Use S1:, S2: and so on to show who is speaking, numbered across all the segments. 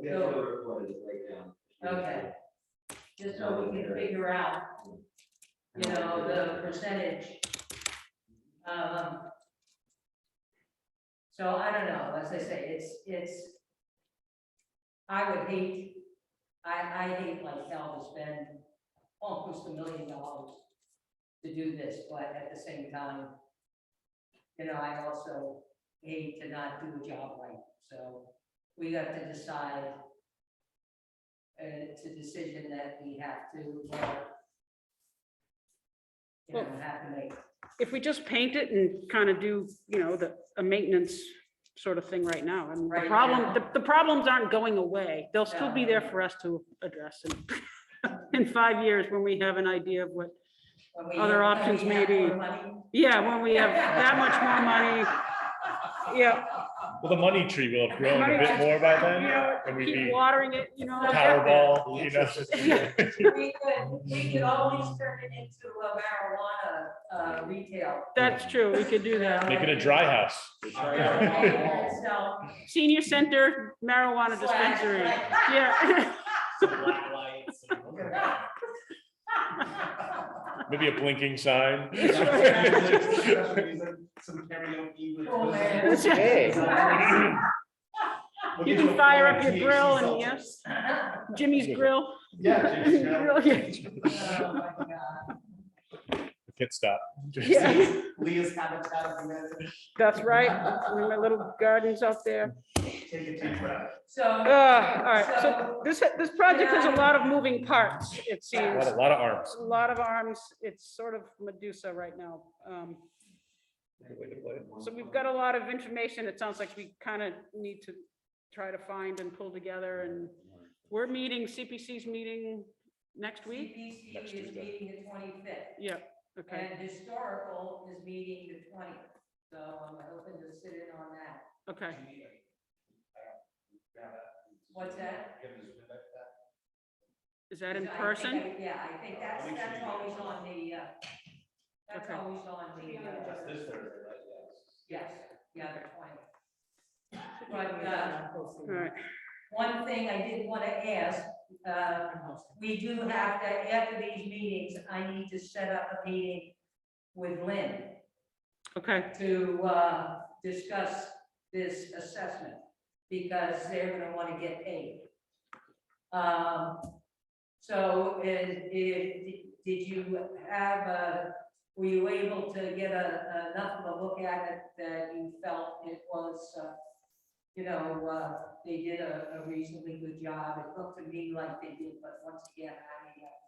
S1: We have to record it right now.
S2: Okay. just so we can figure out, you know, the percentage. Um. So I don't know, as I say, it's, it's. I would hate, I, I hate like hell to spend almost a million dollars to do this, but at the same time, you know, I also hate to not do a job right, so we have to decide uh, it's a decision that we have to, uh, you know, have to make.
S3: If we just paint it and kind of do, you know, the, a maintenance sort of thing right now, I mean, the
S2: Right now.
S3: problem, the, the problems aren't going away. They'll still be there
S2: No.
S3: for us to address in, in five years when we have an idea of what,
S2: when we-
S3: Other
S2: when
S3: options
S2: we
S3: may
S2: have
S3: be-
S2: more money.
S3: yeah, when we have that much more money. Yeah,
S4: Well, the money tree will have grown a bit more by then, and we'd
S3: keep
S4: be
S3: watering it, you know.
S4: Powerball, you know.
S2: We could, we could always turn it into a marijuana, uh, retail.
S3: That's true, we could do that.
S4: Make it a dry house.
S2: And so-
S3: Senior center marijuana dispensary, yeah.
S5: black lights.
S4: Maybe a blinking sign.
S5: Some karaoke with.
S2: Oh, man.
S6: Hey.
S5: We'll
S3: You
S5: give
S3: can
S5: a
S3: fire
S5: full
S3: up
S5: THC
S3: your grill and
S5: seltzer.
S3: yes, Jimmy's Grill.
S5: Yeah. just, yeah.
S3: Grill, yeah.
S2: Oh, my God.
S4: Can't stop.
S3: Yeah,
S5: Leah's habitat. you guys.
S3: That's right, my little gardens out there.
S5: Take a deep breath.
S2: So.
S3: Uh, all right, so this, this project has a lot of moving parts, it
S4: A
S3: seems.
S4: lot, a lot of arms.
S3: A lot of arms, it's sort of Medusa right now. Um, So we've got a lot of information, it sounds like we kind of need to try to find and pull together and we're meeting, CPC's meeting next week?
S2: CPC is
S4: Next Tuesday.
S2: meeting the twenty-fifth,
S3: Yeah, okay,
S2: and historical is meeting the twentieth, so I'm hoping to sit in on that.
S3: okay.
S2: What's that?
S3: Is that in
S2: So I think
S3: person?
S2: I- Yeah, I think that's, that's always on the, uh, that's
S3: Okay.
S2: always on the,
S5: That's
S2: uh,
S5: this Thursday, right?
S2: yes, yeah, the twentieth. But, uh,
S3: All right,
S2: one thing I did want to ask, uh, we do have to, after these meetings, I need to set up a meeting with Lynn
S3: okay,
S2: to, uh, discuss this assessment, because they're gonna wanna get paid. Um, so, and if, did you have, uh, were you able to get a, enough of a look at it that you felt it was, uh, you know, uh, they did a, a reasonably good job, it looked to me like they did, but once again, I, uh,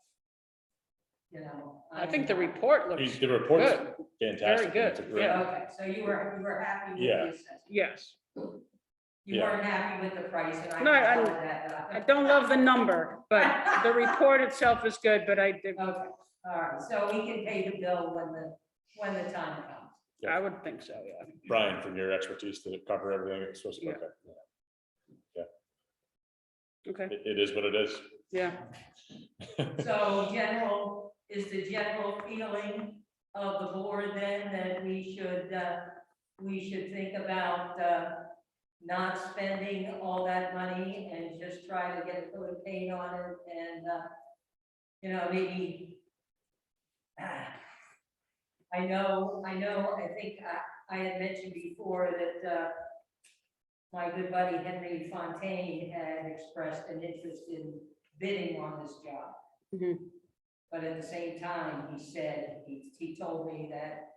S2: you know.
S3: I think the
S2: I'm-
S3: report looks,
S4: The report's fantastic.
S3: Very
S4: It's a
S3: good,
S4: great-
S3: yeah.
S2: Okay, so you were, you were happy with
S4: Yeah.
S2: the assessment?
S3: yes.
S2: You
S4: Yeah.
S2: weren't happy with the price and I.
S3: No, I-
S2: can tell that,
S3: I don't love the number, but the report itself is good, but I, did-
S2: but- Okay, all right, so we can pay the bill when the, when the time comes.
S3: I would think so, yeah.
S4: Brian, from your expertise to cover everything, it's supposed to be okay.
S3: Okay,
S4: It- it is what it is.
S3: yeah,
S2: So general, is the general feeling of the board then that we should, uh, we should think about, uh, not spending all that money and just try to get a coat of paint on it and, uh, you know, maybe. ah, I know, I know, I think I, I had mentioned before that, uh, my good buddy Henry Fontaine had expressed an interest in bidding on this job.
S3: Mhm.
S2: But at the same time, he said, he, he told me that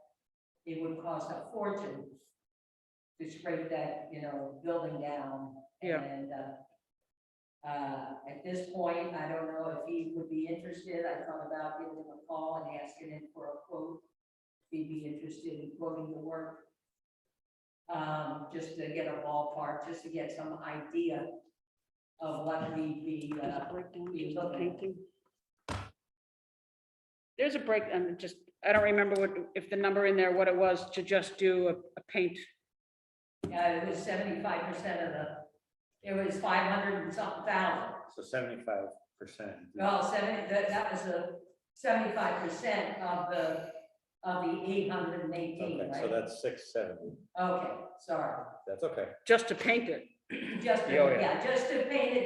S2: it would cost a fortune to scrape that, you know, building down.
S3: Yeah.
S2: And, uh, uh, at this point, I don't know if he would be interested. I thought about giving him a call and asking him for a quote. If he'd be interested in quoting the work. Um, just to get a ballpark, just to get some idea of what we'd be, uh,
S3: There's a breakdown. There's a break, and just, I don't remember what, if the number in there, what it was to just do a, a paint.
S2: Yeah, it was seventy-five percent of the, it was five hundred and something thousand.
S6: So seventy-five percent.
S2: Well, seventy, that, that was the seventy-five percent of the, of the eight hundred and eighteen,
S6: Okay, so
S2: right?
S6: that's six seventy,
S2: Okay, sorry.
S6: that's okay.
S3: Just to paint it.
S2: Just,
S6: Yeah, oh, yeah.
S2: yeah, just to paint it